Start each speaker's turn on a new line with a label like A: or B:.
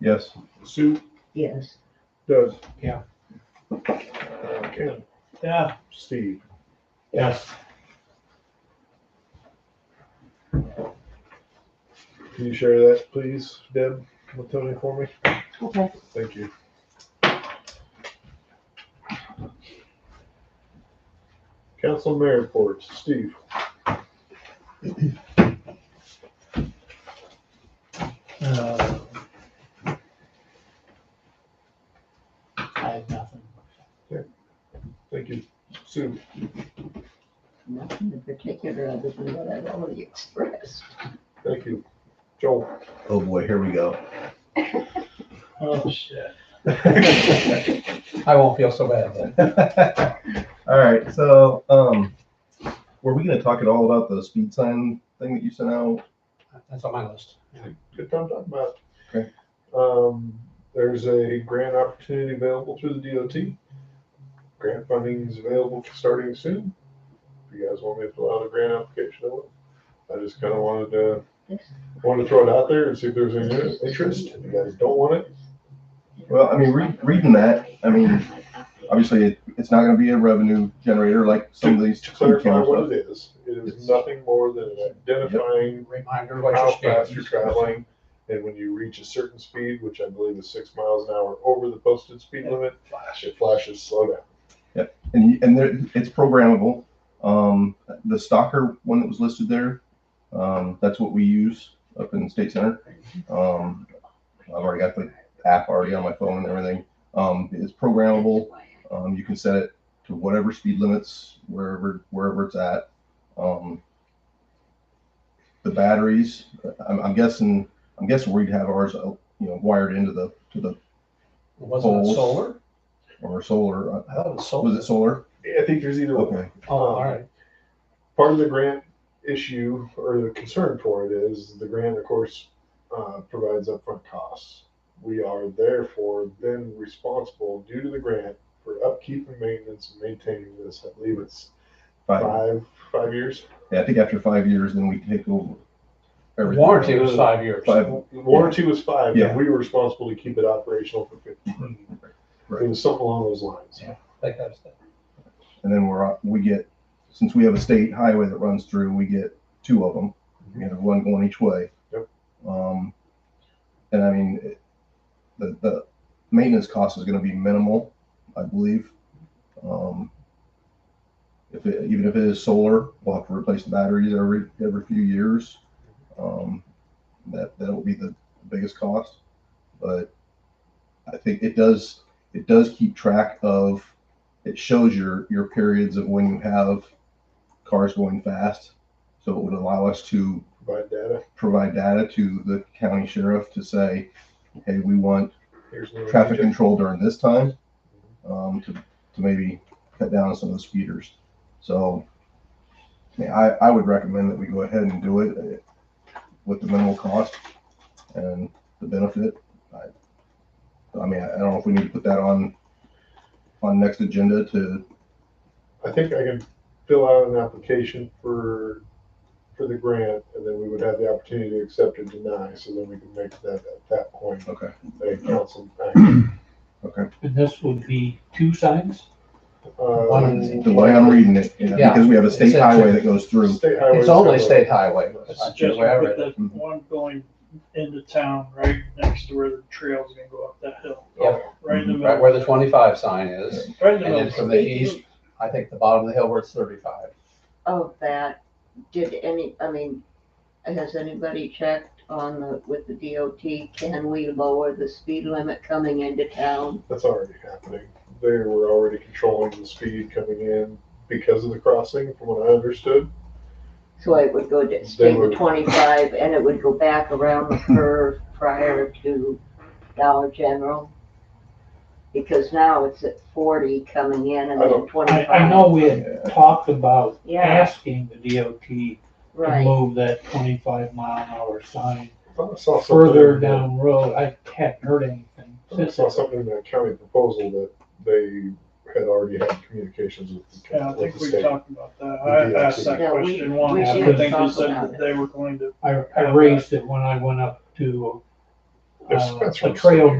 A: Yes.
B: Sue
C: Yes.
B: does.
D: Yeah.
B: Okay,
D: Yeah.
B: Steve,
D: Yes.
B: can you share that, please, Deb, with Tony for me?
C: Okay.
B: Thank you. Council mayor reports, Steve.
D: Uh, I have nothing.
B: Thank you. Sue,
C: Nothing in particular other than what I've already expressed.
B: thank you. Joel.
A: Oh boy, here we go.
D: Oh, shit.
A: All
D: I won't feel so bad then.
A: right, so, um, were we gonna talk at all about the speed sign thing that you sent out?
D: That's on my list.
B: Good time talking about.
A: Okay.
B: Um, there's a grant opportunity available through the DOT. Grant funding is available starting soon. If you guys want me to fill out a grant application, I will. I just kind of wanted to, wanted to throw it out there and see if there's any interest. If you guys don't want it,
A: Well, I mean, re- reading that, I mean, obviously, it, it's not gonna be a revenue generator like some of these.
B: to clarify what it is. It is nothing more than identifying
D: Reminder what
B: how
D: your
B: fast
D: speed
B: you're
D: is.
B: traveling. And when you reach a certain speed, which I believe is six miles an hour over the posted speed limit, it flashes slow down.
A: And, you- and there, it's programmable. Um, the stalker one that was listed there, um, that's what we use up in State Center. Um, I've already got the app already on my phone and everything. Um, it's programmable. Um, you can set it to whatever speed limits, wherever, wherever it's at. Um, the batteries, I'm, I'm guessing, I'm guessing we'd have ours, uh, you know, wired into the, to the,
D: Wasn't it solar?
A: or solar. uh,
D: I thought it was solar.
A: Was it solar?
B: I think there's either one.
A: Okay.
D: Oh, all right.
B: part of the grant issue or the concern for it is the grant, of course, uh, provides upfront costs. We are therefore then responsible due to the grant for upkeep and maintenance and maintaining this. I believe it's
A: Five.
B: five, five years.
A: Yeah, I think after five years, then we take over. everything.
D: Warranty was five years.
A: Five.
B: Warranty was five,
A: Yeah.
B: and we were responsible to keep it operational for fifteen.
A: Right.
B: It was something along those lines.
D: Like that's the-
A: And then we're, on- we get, since we have a state highway that runs through, we get two of them. We have one going each way.
B: Yep.
A: Um, and I mean, it- the, the maintenance cost is gonna be minimal, I believe. Um, if it, even if it is solar, we'll have to replace the batteries every, every few years. Um, that, that'll be the biggest cost. But I think it does, it does keep track of it shows your your periods of when you have cars going fast. So it would allow us to
B: Provide data.
A: provide data to the county sheriff to say, hey, we want
B: Here's the-
A: traffic control during this time um, to, to maybe cut down on some of the speeders. So I, mean, I, I would recommend that we go ahead and do it uh, with the minimal cost and the benefit. I, I mean, I I don't know if we need to put that on on next agenda to
B: I think I can fill out an application for, for the grant, and then we would have the opportunity to accept or deny, so then we can make that, at that point,
A: okay.
B: a council action.
E: And this would be two signs?
B: Uh,
A: The way I'm reading it, you know,
D: Mm. Yeah.
A: because we have a state
D: It's a-
A: highway that goes through.
B: State highway.
D: It's only state highway. It's
E: Just
D: just where I
E: with
D: read it. Mm-hmm.
E: the one going into town, right next to where the trail's gonna go up that hill,
B: Yeah.
E: right in the
D: Right
E: middle.
D: where the twenty-five sign is,
E: Right in
D: Mm-hmm.
E: the
D: and then
E: middle.
D: from the east, I think the bottom of the hill where it's thirty-five.
C: Of that, did any, I mean, has anybody checked on the, with the DOT? Can we lower the speed limit coming into town?
B: That's already happening. They were already controlling the speed coming in because of the crossing, from what I understood.
C: So it would go to,
B: They
C: stay to
B: would-
C: twenty-five and it would go back around the curve prior to Dollar General? Because now it's at forty coming in and
B: I
C: then
B: don't-
E: I,
C: twenty-five.
E: I know we had
A: Yeah.
E: talked about
C: Yeah,
E: asking the DOT to
C: right.
E: move that twenty-five mile an hour sign
B: I thought I saw something-
E: further down the road. I hadn't heard anything
B: I thought I
E: since.
B: saw
E: then.
B: something in that county proposal that they had already had communications with the
E: Yeah, I
B: county.
E: think we talked about that.
B: We
E: I
B: did,
E: asked that
C: Yeah, we-
E: question once.
C: we
E: I should think they
C: talk
E: said
C: about
E: that
C: it.
E: they were going to, I, I raised it when I went up to
B: That's-
E: uh,
B: that's what
E: a
B: I'm saying.
E: trail